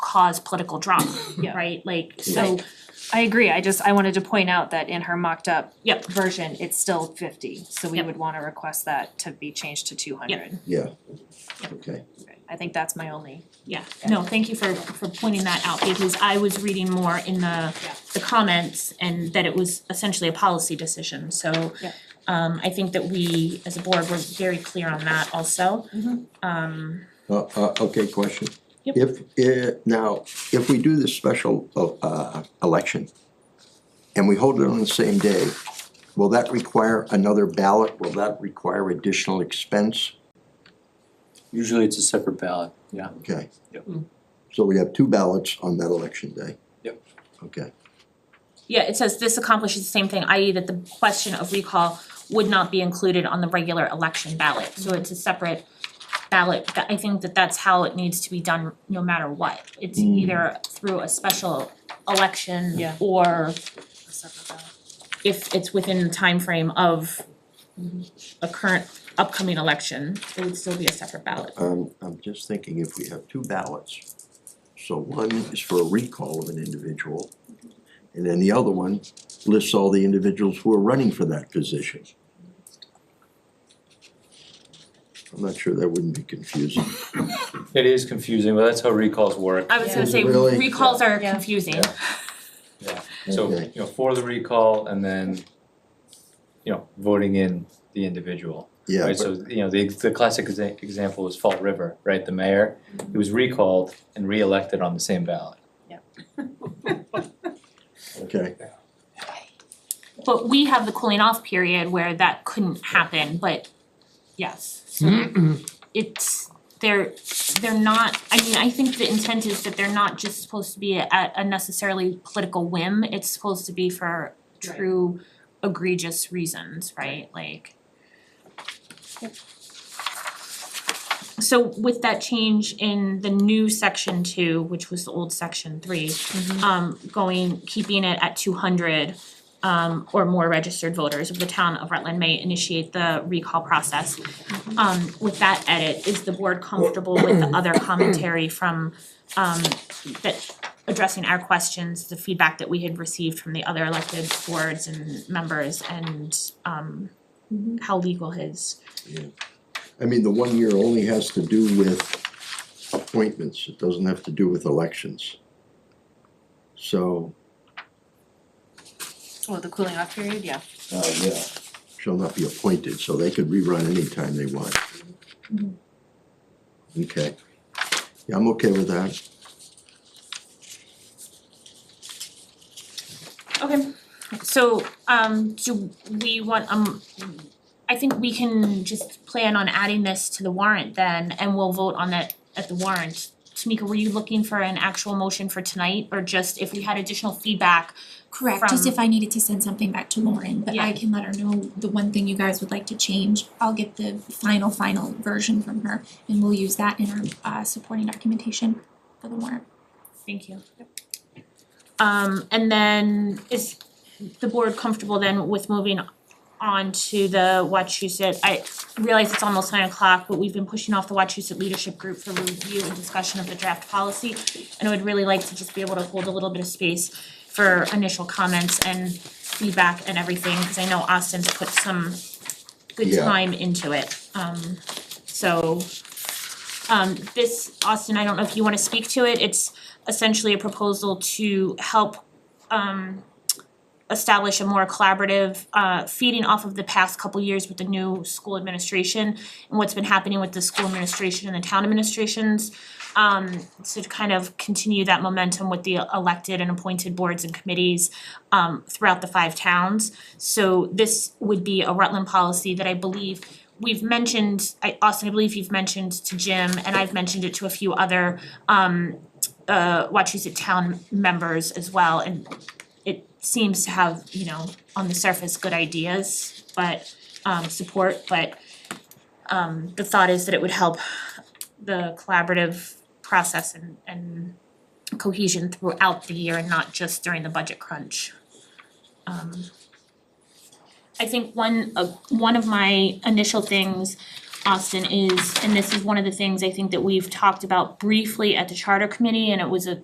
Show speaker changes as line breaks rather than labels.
cause political drama, right? Like, so,
I agree, I just, I wanted to point out that in her mocked up
Yep.
version, it's still fifty, so we
Yep.
would wanna request that to be changed to two hundred.
yeah, okay.
I think that's my only,
yeah, no, thank you for for pointing that out because I was reading more in the the comments and that it was essentially a policy decision, so
Yeah.
um I think that we as a board were very clear on that also. Um
Uh, uh, okay, question.
Yep.
If, eh, now, if we do this special, uh, election and we hold it on the same day, will that require another ballot? Will that require additional expense?
Usually it's a separate ballot, yeah.
Okay.
Yep.
So we have two ballots on that election day?
Yep.
Okay,
yeah, it says this accomplishes the same thing, i.e. that the question of recall would not be included on the regular election ballot, so it's a separate ballot, That- I think that that's how it needs to be done no matter what. It's either through a special election
Mm. Yeah.
or if it's within the timeframe of a current upcoming election, it would still be a separate ballot.
um, I'm just thinking if we have two ballots, so one is for a recall of an individual, and then the other one lists all the individuals who are running for that position. I'm not sure that wouldn't be confusing.
It is confusing, but that's how recalls work.
I was gonna say
Really?
recalls are
Yeah.
confusing.
Yeah.
So,
Okay.
you know, for the recall and then, you know, voting in the individual.
Yeah,
Right, so, you know, the the classic exa- example is Fall River, right? The mayor, he was recalled and reelected on the same ballot.
but- okay,
But we have the cooling off period where that couldn't happen, but yes, so it's, they're, they're not, I mean, I think the intent is that they're not just supposed to be at a necessarily political whim, it's supposed to be for true egregious reasons, right, like. So with that change in the new section two, which was the old section three, um going, keeping it at two hundred um or more registered voters of the town of Rutland may initiate the recall process. Um with that edit, is the board comfortable with the other commentary from um that addressing our questions, the feedback that we had received from the other elected boards and members and um how legal his
I mean, the one year only has to do with appointments, it doesn't have to do with elections. So,
well, Oh, the cooling off period, yeah.
uh, yeah, shall not be appointed, so they could rerun anytime they want. Okay, yeah, I'm okay with that.
Okay, so um do we want um I think we can just plan on adding this to the warrant then and we'll vote on that at the warrant. Tamika, were you looking for an actual motion for tonight or just if we had additional feedback?
Correct, just
from-
if I needed to send something back to Lauren, but I can let her know the one thing you guys would like to change. I'll get the final, final version from her and we'll use that in our uh supporting documentation for the warrant.
Thank you. Um and then is the board comfortable then with moving on to the Wachusett? I realize it's almost nine o'clock, but we've been pushing off the Wachusett Leadership Group for review and discussion of the draft policy. And I would really like to just be able to hold a little bit of space for initial comments and feedback and everything, cause I know Austin's put some good
Yeah.
time into it. Um so um this, Austin, I don't know if you wanna speak to it, it's essentially a proposal to help um establish a more collaborative uh feeding off of the past couple years with the new school administration and what's been happening with the school administration and the town administrations um to kind of continue that momentum with the elected and appointed boards and committees um throughout the five towns. So this would be a Rutland policy that I believe we've mentioned, I Austin, I believe you've mentioned to Jim and I've mentioned it to a few other um uh Wachusett town members as well and it seems to have, you know, on the surface, good ideas, but um support, but um the thought is that it would help the collaborative process and and cohesion throughout the year and not just during the budget crunch. Um I think one of one of my initial things, Austin, is, and this is one of the things I think that we've talked about briefly at the charter committee and it was a